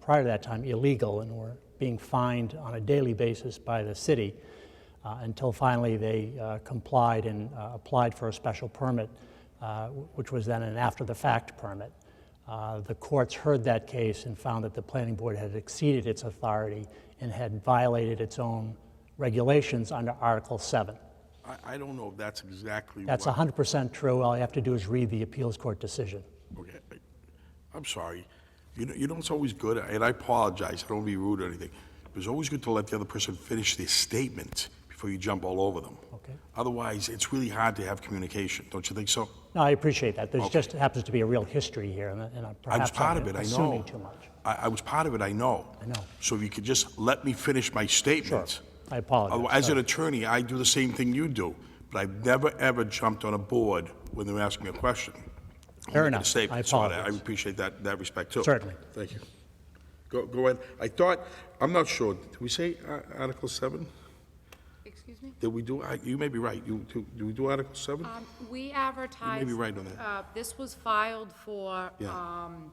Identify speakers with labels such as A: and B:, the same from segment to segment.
A: prior to that time illegal and were being fined on a daily basis by the city uh, until finally they uh, complied and uh, applied for a special permit, uh, wh- which was then an after the fact permit. Uh, The courts heard that case and found that the planning board had exceeded its authority and had violated its own regulations under Article 7.
B: I, I don't know if that's exactly
A: That's
B: what-
A: 100% true. All you have to do is read the appeals court decision.
B: Okay, I- I'm sorry. You know, you know, it's always good, and I apologize, I don't want to be rude or anything. but It's always good to let the other person finish their statement before you jump all over them.
A: Okay.
B: Otherwise, it's really hard to have communication, don't you think so?
A: No, I appreciate that. There's just happens to be a real history here, and and
B: I was
A: perhaps
B: part
A: I'm
B: of it, I know.
A: assuming too much.
B: I, I was part of it, I know.
A: I know.
B: So if you could just let me finish my
A: Sure.
B: statement.
A: I apologize.
B: Otherwise, As an attorney, Oh, I do the same thing you do, but I've never, ever jumped on a board when they were asking me a question. I'm
A: Fair
B: making a
A: enough.
B: statement,
A: I
B: so I
A: apologize.
B: appreciate that, that respect, too.
A: Certainly.
B: Thank you. Go, go ahead. I thought, I'm not sure, did we say uh, Article 7?
C: Excuse me?
B: Did we do, I- you may be right, you, do do we do Article 7?
C: Um, We advertised.
B: right on that.
C: uh, This was filed for
B: Yeah.
C: um,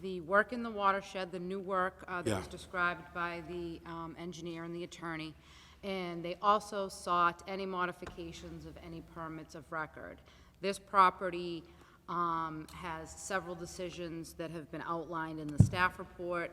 C: the work in the watershed, the new work uh, that
B: Yeah.
C: was described by the um, engineer and the attorney. And they also sought any modifications of any permits of record. This property um, has several decisions that have been outlined in the staff report.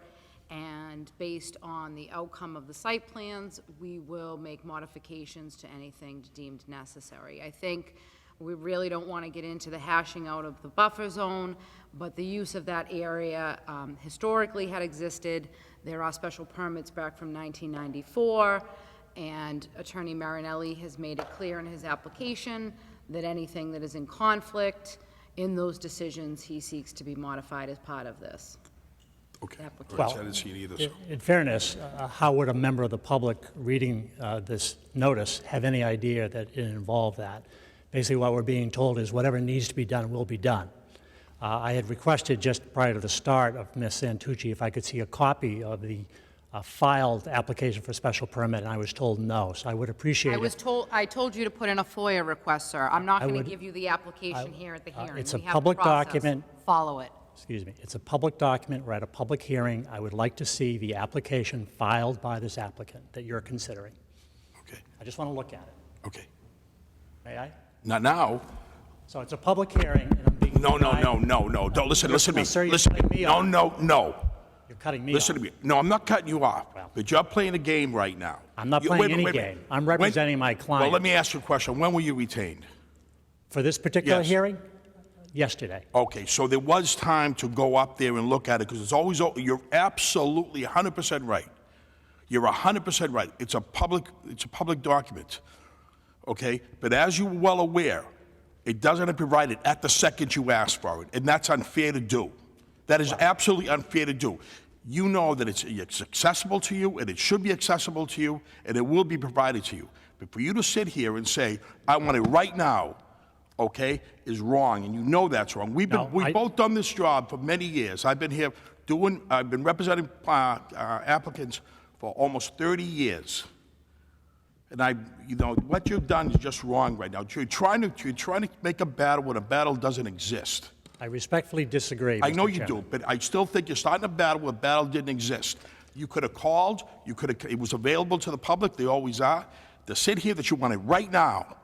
C: And based on the outcome of the site plans, we will make modifications to anything deemed necessary. I think we really don't want to get into the hashing out of the buffer zone, but the use of that area um, historically had existed. There are special permits back from 1994, and Attorney Marinelli has made it clear in his application that anything that is in conflict in those decisions, he seeks to be modified as part of this.
B: Okay. All right,
A: Well,
B: so I didn't see it either,
A: In
B: so-
A: in fairness, uh, how would a member of the public reading uh, this notice have any idea that it involved that? Basically, what we're being told is whatever needs to be done will be done. Uh, I had requested just prior to the start of Ms. Santucci if I could see a copy of the uh, filed application for special permit, and I was told no. So I would appreciate
C: I
A: it.
C: was told, I told you to put in a FOIA request, sir. I'm not going to
A: would-
C: give you the application here at the
A: uh,
C: hearing.
A: it's
C: We
A: a
C: have a
A: public
C: process.
A: document.
C: Follow it.
A: excuse me, it's a public document, we're at a public hearing. I would like to see the application filed by this applicant that you're considering.
B: Okay,
A: I just want to look at it,
B: okay.
A: may I?
B: Not now.
A: So it's a public hearing, and I'm being
B: No, no,
A: denied-
B: no, no, no, don't, listen, listen to
A: No, sir,
B: me,
A: you're
B: listen.
A: cutting me
B: No,
A: off.
B: no, no.
A: You're cutting me
B: Listen to
A: off.
B: me. No, I'm not cutting you off,
A: Well-
B: but you're playing a game right now.
A: I'm not
B: You-
A: playing
B: wait a
A: any
B: minute, wait a
A: game.
B: minute.
A: I'm
B: When-
A: representing my
B: Well, let
A: client.
B: me ask you a question. When were you retained?
A: For this particular
B: Yes.
A: hearing? Yesterday.
B: Okay, so there was time to go up there and look at it, because it's always, o- you're absolutely 100% right. You're 100% right. It's a public, it's a public document, okay? But as you're well aware, it doesn't provide it at the second you ask for it, and that's unfair to do. That is absolutely unfair to do. You know that it's, it's accessible to you, and it should be accessible to you, and it will be provided to you. But for you to sit here and say, I want it right now, okay, is wrong, and you know that's wrong. We've
A: No,
B: been,
A: I-
B: we've both done this job for many years. I've been here doing, I've been representing uh, uh, applicants for almost 30 years. And I, you know, what you've done is just wrong right now. You're trying to, you're trying to make a battle when a battle doesn't exist.
A: I respectfully disagree,
B: I know
A: Mr.
B: you do,
A: Chairman.
B: but I still think you're starting a battle where a battle didn't exist. You could have called, you could have, it was available to the public, they always are. To sit here that you want it right now,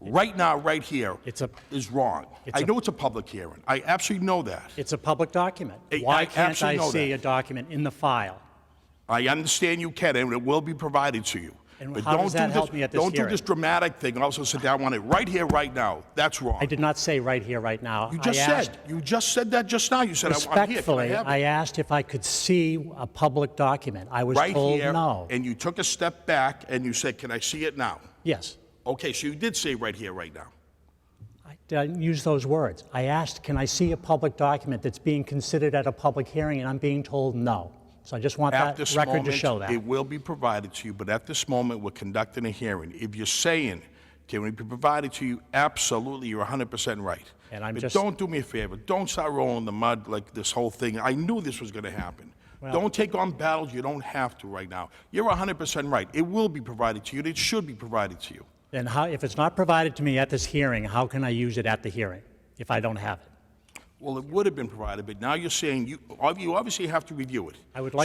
B: right now, right here,
A: It's a-
B: is wrong. I
A: a-
B: know it's a public hearing. I absolutely know that.
A: It's a public document.
B: I- I
A: Why can't
B: absolutely
A: I
B: know
A: see
B: that.
A: a document in the file?
B: I understand you can, and it will be provided to you.
A: And
B: But
A: how
B: don't
A: does
B: do
A: that help
B: this-
A: me at this
B: Don't do this
A: hearing?
B: dramatic thing, also sit down, I want it right here, right now. That's wrong.
A: I did not say right here, right now.
B: You
A: I
B: just
A: asked-
B: said, you just said that just now. You said, "I- I'm here, can I
A: Respectfully,
B: have
A: I
B: it?"
A: asked if I could see a public document. I was
B: Right
A: told
B: here,
A: no.
B: and you took a step back and you said, can I see it now?
A: Yes.
B: Okay, so you did say right here, right now.
A: I didn't use those words. I asked, can I see a public document that's being considered at a public hearing, and I'm being told no. So I just want
B: At
A: that
B: this
A: record to show
B: moment,
A: that.
B: it will be provided to you, but at this moment, we're conducting a hearing. If you're saying, can it be provided to you? Absolutely, you're 100% right.
A: And I'm
B: But
A: just-
B: don't do me a favor, don't start rolling the mud like this whole thing. I knew this was going to happen. Don't take on battles you don't have to right now. You're 100% right. It will be provided to you, and it should be provided to you.
A: Then how, if it's not provided to me at this hearing, how can I use it at the hearing if I don't have it?
B: Well, it would have been provided, but now you're saying you, you obviously have to review it.
A: I would like